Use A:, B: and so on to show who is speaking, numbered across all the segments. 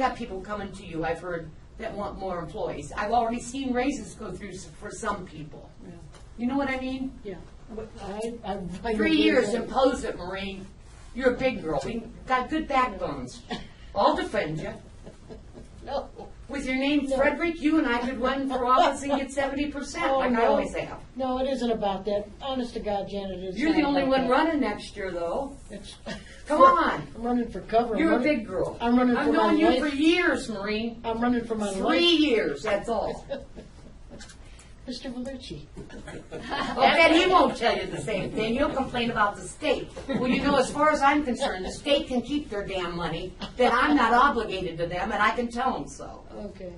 A: got people coming to you, I've heard, that want more employees. I've already seen raises go through s- for some people. You know what I mean?
B: Yeah, I, I.
A: Three
B: I agree
A: years,
B: with that.
A: impose it, Maureen. You're a big girl. We got good backbones. I'll defend you.
B: No,
A: With your name Frederick, you and I could run for office and get seventy percent,
B: Oh,
A: like I
B: no.
A: always have.
B: no, it isn't about that. Honest to God, Janet, it's.
A: You're the
B: not
A: only
B: about
A: one
B: that.
A: running next year, though.
B: It's-
A: Come on.
B: I'm running for cover. I'm
A: You're a
B: running-
A: big girl.
B: I'm running for my
A: I've known you for
B: life.
A: years, Maureen.
B: I'm running for my
A: Three
B: life.
A: years, that's all.
B: Mr. Valucci.
A: I bet he won't tell you the same thing. He'll complain about the state. Well, you know, as far as I'm concerned, the state can keep their damn money, then I'm not obligated to them, and I can tell them so,
B: Okay,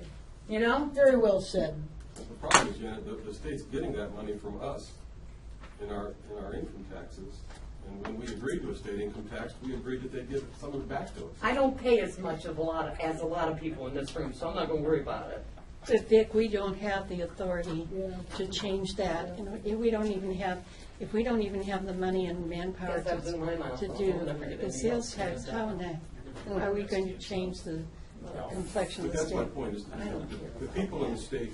A: you know?
B: very well said.
C: The problem is, Janet, that the state's getting that money from us in our, in our income taxes. And when we agreed to a state income tax, we agreed that they'd give some of it back to us.
A: I don't pay as much of a lot, of- as a lot of people in this room, so I'm not gonna worry about it.
D: But Vic, we don't have the authority
B: Yeah.
D: to change that. You know, if we don't even have, if we don't even have the money and manpower
A: Yes,
D: to
A: that's in my mind.
D: to
A: I'll never
D: do
A: get
D: the
A: it.
D: sales tax, how in that, are we going to change the complexion
C: But
D: of
C: that's
D: the
C: my
D: state?
C: point, is the- the people in the state,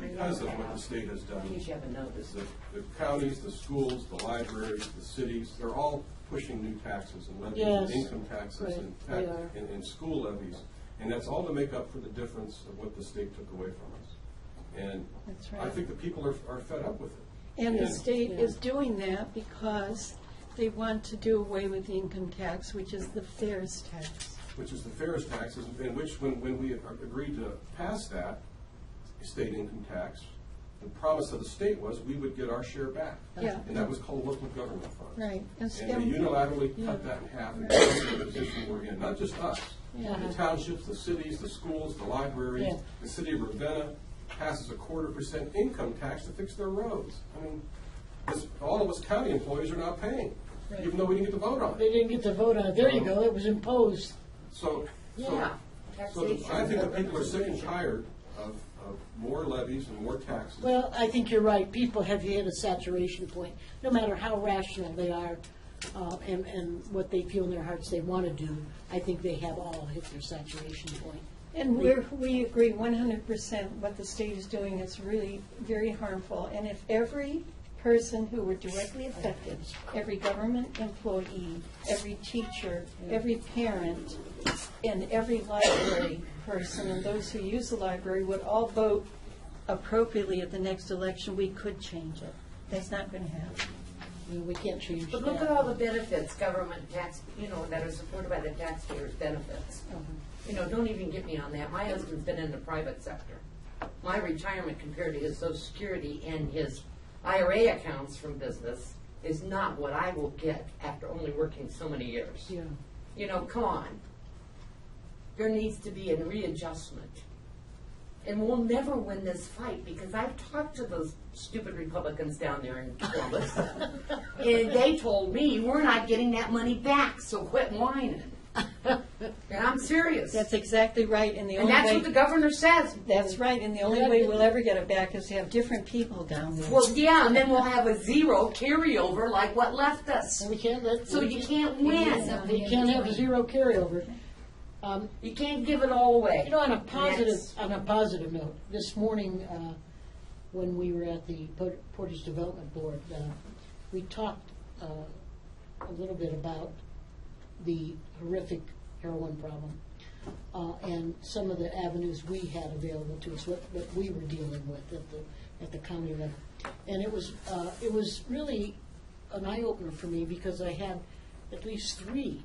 C: because of what the state has
A: In
C: done,
A: case you haven't noticed.
C: the the counties, the schools, the libraries, the cities, they're all pushing new taxes and levies,
B: Yes.
C: and income taxes and,
B: Right, they
C: tax-
B: are.
C: and, and school levies. And that's all to make up for the difference of what the state took away from us. And
D: That's
C: I
D: right.
C: think the people are, are fed up with it.
D: And the
C: Yeah.
D: state is doing that because they want to do away with the income tax, which is the fairest tax.
C: which is the fairest taxes, and which, when, when we agreed to pass that state income tax, the promise of the state was we would get our share back.
D: Yeah.
C: And that was called local government funds.
D: Right. And so-
C: And they unilaterally cut that in half and put us in the position we're in, not just us. The townships, the cities, the schools, the libraries,
B: Yeah.
C: the city of Ravenna passes a quarter percent income tax to fix their roads. I mean, this- all of us county employees are not paying, even though we didn't get to vote on
B: They
C: it.
B: didn't get to vote on it. There you go, it was imposed.
C: So, so.
A: Yeah.
C: So
A: Taxation.
C: I think that people are sick and tired of, of more levies and more taxes.
B: Well, I think you're right. People have hit a saturation point, no matter how rational they are uh, and, and what they feel in their hearts they want to do. I think they have all hit their saturation point.
D: And we're, we agree one hundred percent what the state is doing is really very harmful. And if every person who were directly affected, every government employee, every teacher, every parent, and every library person, and those who use the library would all vote appropriately at the next election, we could change it. That's not gonna happen.
B: I mean, we can't change
A: But look at all
B: that.
A: the benefits, government tax, you know, that are supported by the taxpayers' benefits. You know, don't even get me on that. My husband's been in the private sector. My retirement compared to his social security and his IRA accounts from business is not what I will get after only working so many years.
B: Yeah.
A: You know, come on. There needs to be a readjustment. And we'll never win this fight because I've talked to those stupid Republicans down there in Columbus. and they told me, we're not getting that money back, so quit whining. And I'm serious.
D: That's exactly right, and the
A: and
D: only
A: that's what the
D: way,
A: governor says.
D: that's right, and the only way we'll ever get it back is to have different people down there.
A: Well, yeah, and then we'll have a zero carryover like what left us.
B: And we can't let.
A: So you can't win.
B: You can't have a zero carryover. Um,
A: You can't give it all away.
B: You know, on a positive,
A: Yes.
B: on a positive note, this morning, uh, when we were at the Port- Portage Development Board, uh, we talked uh, a little bit about the horrific heroin problem uh, and some of the avenues we had available to us, what, what we were dealing with at the, at the county level. And it was, uh, it was really an eye-opener for me because I had at least three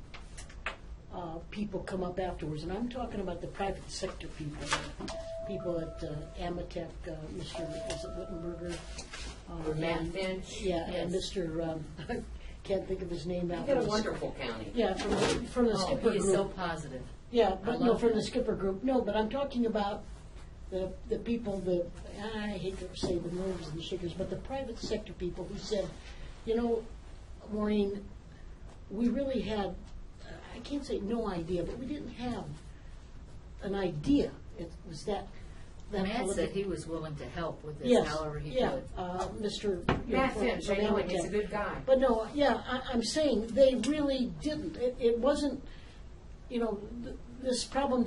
B: uh, people come up afterwards, and I'm talking about the private sector people, people at uh, Amatec, uh, Mr., is it Wittenberger? Uh,
A: Matt
B: and-
A: Finch,
B: Yeah, and
A: yes.
B: Mr., um, can't think of his name now.
A: We've got a wonderful county.
B: Yeah, from, the- from the
A: Oh,
B: Skipper
A: he is so
B: Group.
A: positive.
B: Yeah, but no,
A: love
B: from
A: him.
B: the Skipper Group, no, but I'm talking about the, the people, the, I hate to say the movers and shakers, but the private sector people who said, you know, Maureen, we really had, I can't say no idea, but we didn't have an idea. It was that, that.
E: Matt said he was willing to help with this
B: Yes,
E: however he
B: yeah,
E: could.
B: uh, Mr.
A: Matt Finch, I know him, he's a
B: Yamamoto.
A: good guy.
B: But no, yeah, I, I'm saying they really didn't. It, it wasn't, you know, th- this problem